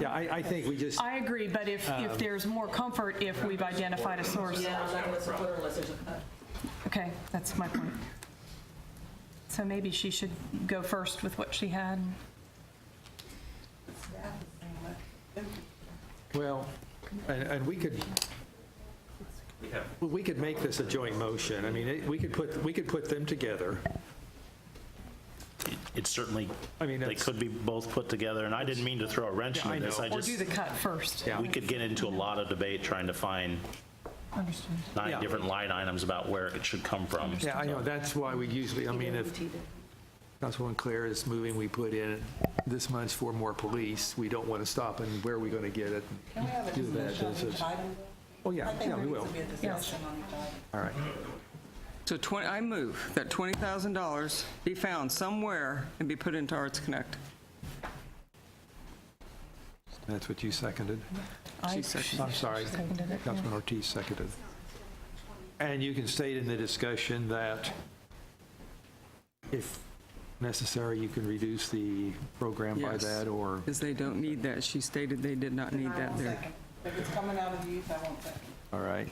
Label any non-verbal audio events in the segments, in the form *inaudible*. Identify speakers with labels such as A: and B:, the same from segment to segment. A: Yeah, I, I think we just,
B: I agree, but if, if there's more comfort if we've identified a source.
C: Yeah, I'm not gonna support it unless there's a,
B: Okay, that's my point. So maybe she should go first with what she had.
A: well, and, and we could, well, we could make this a joint motion. I mean, it- we could put, we could put them together.
D: It certainly,
A: I mean,
D: they
A: it's-
D: could be both put together, and I didn't mean to throw a wrench
A: Yeah, I
D: into this.
A: know.
D: I
B: Or
D: just,
B: do the cut first.
A: Yeah.
D: we could get into a lot of debate trying to find
B: Understood.
A: Yeah.
D: nine different line items about where it should come from.
A: Yeah, I know, that's why we usually, I mean, if Councilwoman Claire is moving, we put in this much for more police, we don't want to stop, and where are we going to get it?
E: Can we have a
A: Do that,
E: discussion on
A: this is-
E: each item?
A: Oh, yeah,
E: I think
A: yeah,
E: there
A: we
E: needs
A: will.
E: to be a discussion on each item.
A: All right.
F: So 20, I move that $20,000 be found somewhere and be put into Arts Connect.
A: That's what you seconded.
B: I-
F: She seconded.
A: I'm sorry.
B: Seconded it, yeah.
A: Councilman Ortiz seconded. And you can state in the discussion that if necessary, you can reduce the program by
F: Yes.
A: that, or,
F: Because they don't need that. She stated they did not need that there.
E: Second. If it's coming out of the youth, I won't second.
A: all right?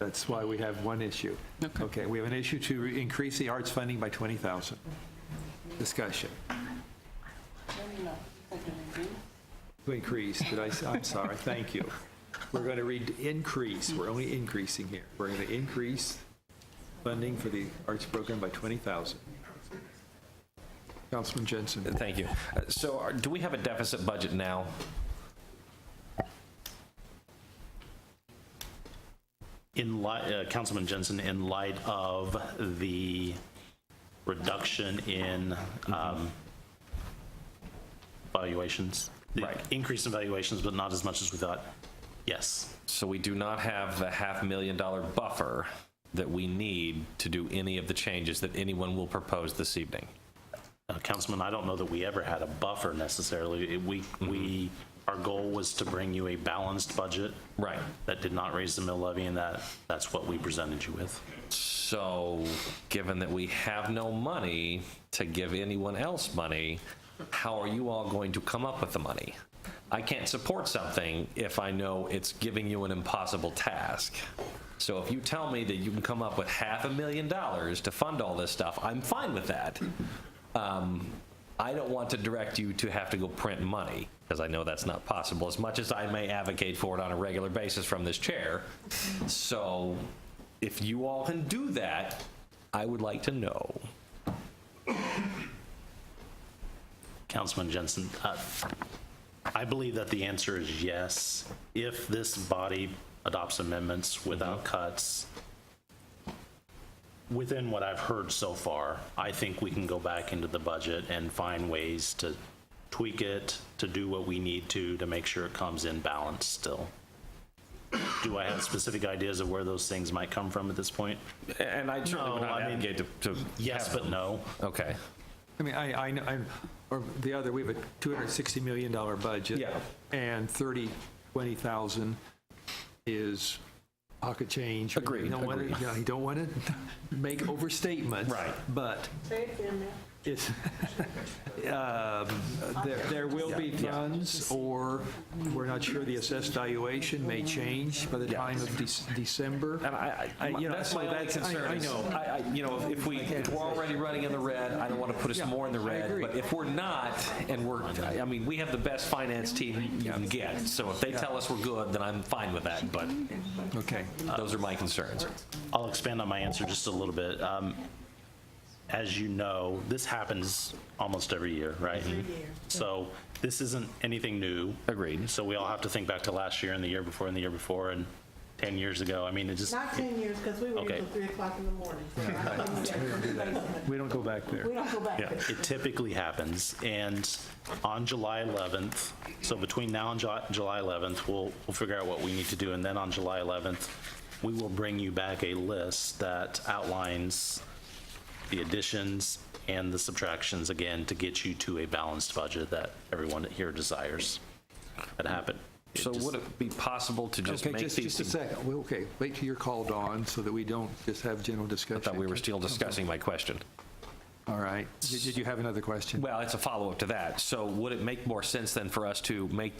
A: That's why we have one issue.
F: Okay.
A: Okay, we have an issue to re- increase the arts funding by 20,000. Discussion.
E: Let me know. Second and do.
A: To increase, did I, am sorry, thank you. We're going to read increase, we're only increasing here. We're going to increase funding for the arts program by 20,000. Councilman Jensen.
G: Thank you. Uh, So are- do we have a deficit budget now?
D: In light, uh, Councilman Jensen, in light of the reduction in um, valuations, the
G: Right.
D: increase in valuations, but not as much as we thought, yes.
G: So we do not have the half million dollar buffer that we need to do any of the changes that anyone will propose this evening.
D: Uh, Councilman, I don't know that we ever had a buffer necessarily. It- We, we, our goal was to bring you a balanced budget.
G: Right.
D: That did not raise the mill levy, and that, that's what we presented you with.
G: So, given that we have no money to give anyone else money, how are you all going to come up with the money? I can't support something if I know it's giving you an impossible task. So if you tell me that you can come up with half a million dollars to fund all this stuff, I'm fine with that. Um, I don't want to direct you to have to go print money because I know that's not possible as much as I may advocate for it on a regular basis from this chair. So if you all can do that, I would like to know.
D: Councilman Jensen, uh, I believe that the answer is yes. If this body adopts amendments without cuts, within what I've heard so far, I think we can go back into the budget and find ways to tweak it, to do what we need to, to make sure it comes in balance still. Do I have specific ideas of where those things might come from at this point?
G: And I certainly would
D: No,
G: not
D: I mean-
G: advocate to, to.
D: Yes, but no.
G: Okay.
A: I mean, I, I, know- I'm- or the other, we have a $260 million budget.
G: Yeah.
A: And 30, 20,000 is pocket change.
G: Agreed,
A: You don't wanna-
G: agreed.
A: You know, you don't want to make overstatements.
G: Right.
A: But
E: Say it again, ma'am.
A: It's, *laughs* um, there there will be funds, or we're not sure, the assessed valuation may change by the time of Dec- December.
G: And I,
A: I-
G: I,
A: you know,
G: that's
A: so
G: my only
A: that's- I-
G: concern.
A: I
G: is-
A: know.
G: I, I, you know, if- if we, if we're already running in the red, I don't want to put us
A: Yeah,
G: more in the
A: I
G: red.
A: agree.
G: But if we're not, and we're, I I mean, we have the best finance team you can get. So if they tell us we're good, then I'm fine with that, but
A: Okay.
G: those are my concerns.
D: I'll expand on my answer just a little bit. Um, As you know, this happens almost every year, right? Mm-hmm. So this isn't anything new.
G: Agreed.
D: So we all have to think back to last year and the year before and the year before and 10 years ago. I mean, it just,
H: Not 10 years, because we were here
D: Okay.
H: till 3 o'clock in the morning. so I think
A: We don't go back there.
H: We don't go back there.
D: it typically happens. And on July 11th, so between now and Ju- July 11th, we'll, we'll figure out what we need to do. And then on July 11th, we will bring you back a list that outlines the additions and the subtractions again to get you to a balanced budget that everyone here desires. That happen. it
G: So
D: just-
G: would it be possible to just
A: Okay,
G: make
A: just, just a
G: these?
A: second. Well, Okay, wait till you're called on, so that we don't just have general discussion.
G: I thought we were still discussing my question.
A: All right. Did did you have another question?
G: Well, it's a follow-up to that. So would it make more sense then for us to make